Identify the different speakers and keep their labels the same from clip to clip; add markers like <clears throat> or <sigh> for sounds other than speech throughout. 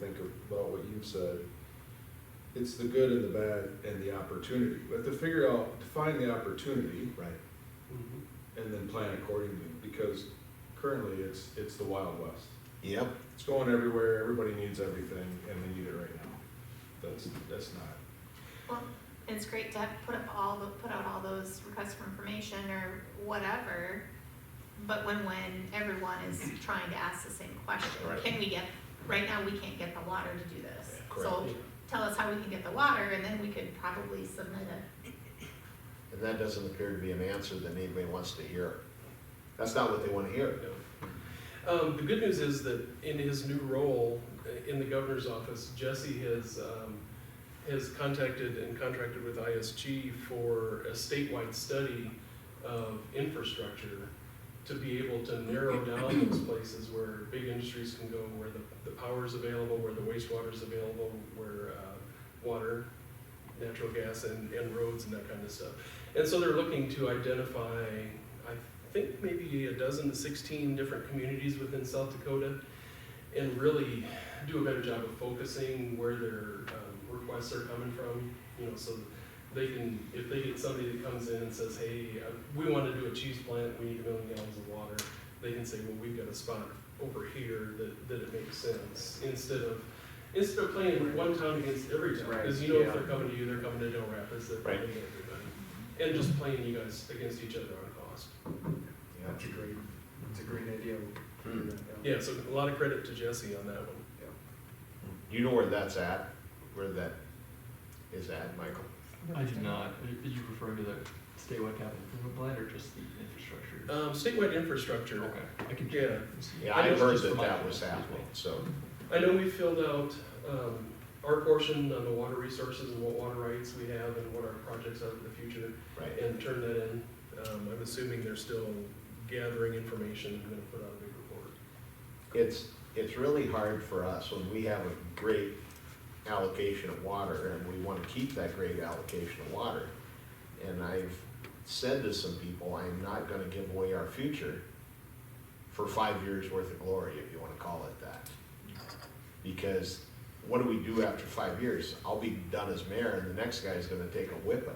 Speaker 1: think about what you've said, it's the good and the bad and the opportunity. But to figure out, define the opportunity
Speaker 2: Right.
Speaker 3: Mm-hmm.
Speaker 1: and then plan accordingly, because currently it's, it's the Wild West.
Speaker 2: Yep.
Speaker 1: It's going everywhere, everybody needs everything, and they need it right now. That's, that's not,
Speaker 4: Well, it's great to have, put up all, the put out all those requests for information or whatever, but when, when everyone is
Speaker 3: Mm-hmm.
Speaker 4: trying to ask the same question,
Speaker 1: Right.
Speaker 4: can we get, right now, we can't get the water to do this.
Speaker 1: Yeah, correct.
Speaker 4: So tell us how we can get the water, and then we could probably submit it.
Speaker 2: And that doesn't appear to be an answer that anybody wants to hear. That's not what they want to hear.
Speaker 3: Um, the good news is that in his new role uh, in the governor's office, Jesse has, um, has contacted and contracted with ISG for a statewide study of infrastructure to be able to narrow down those places where big industries can go, where the, the power's available, where the wastewater's available, where, uh, water, natural gas and, and roads and that kind of stuff. And so they're looking to identify, I think maybe a dozen to sixteen different communities within South Dakota and really do a better job of focusing where their um, requests are coming from, you know, so they can, if they get somebody that comes in and says, hey, uh, we want to do a cheese plant, we need a million gallons of water, they can say, well, we've got a spot over here that, that it makes sense, instead of, instead of playing one town against every town. Because you know, if
Speaker 2: Right,
Speaker 3: they're
Speaker 2: yeah.
Speaker 3: coming to you, they're coming to Del Rapids, they're coming to everybody. And just playing you guys against each other on cost.
Speaker 2: Yeah.
Speaker 5: That's a great, that's a great idea.
Speaker 2: Hmm. <clears throat>
Speaker 3: Yeah, so a lot of credit to Jesse on that one.
Speaker 2: You know where that's at, where that is at, Michael?
Speaker 6: I did not. Did you refer to the statewide capital improvement plan or just the infrastructure?
Speaker 3: Um, statewide infrastructure.
Speaker 6: Okay, I can. check.
Speaker 3: Yeah,
Speaker 2: Uh, Yeah,
Speaker 3: I
Speaker 2: I
Speaker 3: know it's
Speaker 2: heard
Speaker 6: just
Speaker 2: that
Speaker 6: from my-
Speaker 2: that was happening, so,
Speaker 3: I know we filled out, um, our portion on the water resources and what water rights we have and what our projects are for the future
Speaker 2: right.
Speaker 3: and turned that in. Um, I'm assuming they're still gathering information and gonna put out a big report.
Speaker 2: It's, it's really hard for us when we have a great allocation of water and we want to keep that great allocation of water. And I've said to some people, I'm not going to give away our future for five years' worth of glory, if you want to call it that. Because what do we do after five years? I'll be done as mayor and the next guy's going to take a whipping.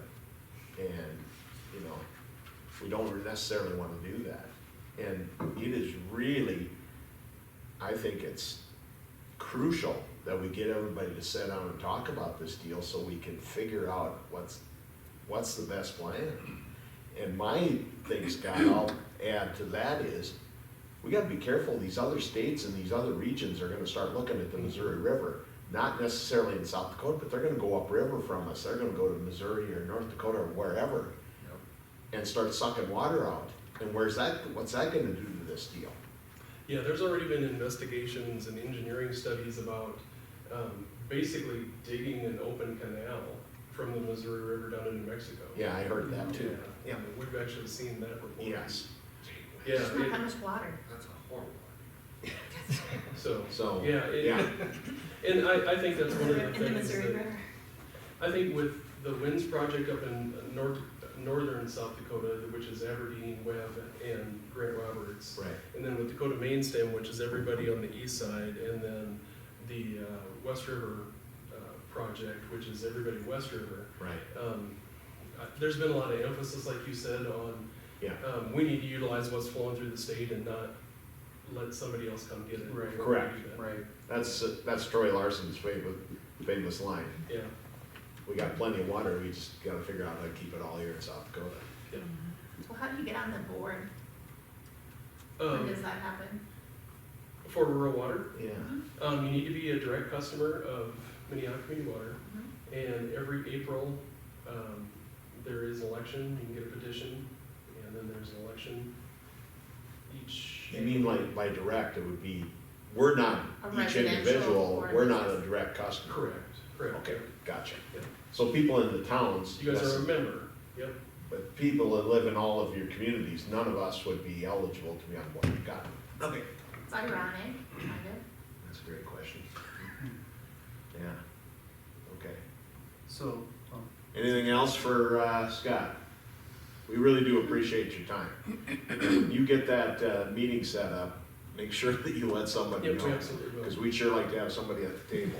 Speaker 2: And, you know, we don't necessarily want to do that. And it is really, I think it's crucial that we get everybody to sit down and talk about this deal so we can figure out what's, what's the best plan. And my thing, Scott, I'll add to that is, we gotta be careful, these other states and these other regions are gonna start looking at the Missouri River, not necessarily in South Dakota, but they're gonna go upriver from us, they're gonna go to Missouri or North Dakota or wherever and start sucking water out. And where's that, what's that gonna do to this deal?
Speaker 3: Yeah, there's already been investigations and engineering studies about um, basically digging an open canal from the Missouri River down into Mexico.
Speaker 2: Yeah, I heard that too.
Speaker 3: Yeah, we've actually seen that report.
Speaker 2: Yes.
Speaker 3: Yeah,
Speaker 4: Just not how
Speaker 3: it-
Speaker 4: much water.
Speaker 5: That's a horrible
Speaker 2: <laughs>
Speaker 3: so,
Speaker 2: So,
Speaker 3: yeah, it,
Speaker 2: yeah,
Speaker 3: and I, I think that's one of the
Speaker 4: In the
Speaker 3: things
Speaker 4: Missouri
Speaker 3: that,
Speaker 4: River.
Speaker 3: I think with the winds project up in north, northern South Dakota, which is Aberdeen, Webb, and Grant Roberts,
Speaker 2: right.
Speaker 3: And then with Dakota Main Stem, which is everybody on the east side, and then the uh, West River uh, project, which is everybody West River.
Speaker 2: Right,
Speaker 3: Um, I- There's been a lot of emphasis, like you said, on,
Speaker 2: yeah,
Speaker 3: um, we need to utilize what's flowing through the state and not let somebody else come get it.
Speaker 5: Right.
Speaker 2: Correct.
Speaker 3: We do that.
Speaker 5: one. Right.
Speaker 2: that's, that's Troy Larson's famous, famous line.
Speaker 3: Yeah,
Speaker 2: We got plenty of water, we just gotta figure out how to keep it all here in South Dakota.
Speaker 4: Well, how do you get on the board? When
Speaker 3: um,
Speaker 4: does that happen?
Speaker 3: for rural water,
Speaker 2: Yeah.
Speaker 3: um, you need to be a direct customer of Minnehaha Community Water.
Speaker 4: Mhm.
Speaker 3: And every April, um, there is an election, you can get a petition, and then there's an election each.
Speaker 2: You mean like by direct, it would be, we're not
Speaker 4: A
Speaker 2: each
Speaker 4: residential
Speaker 2: individual,
Speaker 4: or
Speaker 2: we're not a
Speaker 4: business.
Speaker 2: direct customer.
Speaker 3: Correct, correct.
Speaker 2: Okay, gotcha.
Speaker 3: Yeah.
Speaker 2: So people in the towns,
Speaker 3: You guys
Speaker 2: yes,
Speaker 3: are a member, yep,
Speaker 2: but people that live in all of your communities, none of us would be eligible to be on board, got it. Okay.
Speaker 4: It's ironic, kind of.
Speaker 2: That's a great question. Yeah, okay.
Speaker 5: So, um,
Speaker 2: Anything else for uh, Scott? We really do appreciate your time. You get that uh, meeting set up, make sure <laughs> that you let somebody
Speaker 3: Yep, we
Speaker 2: know.
Speaker 3: absolutely will.
Speaker 2: Because we'd sure like to have somebody at the table.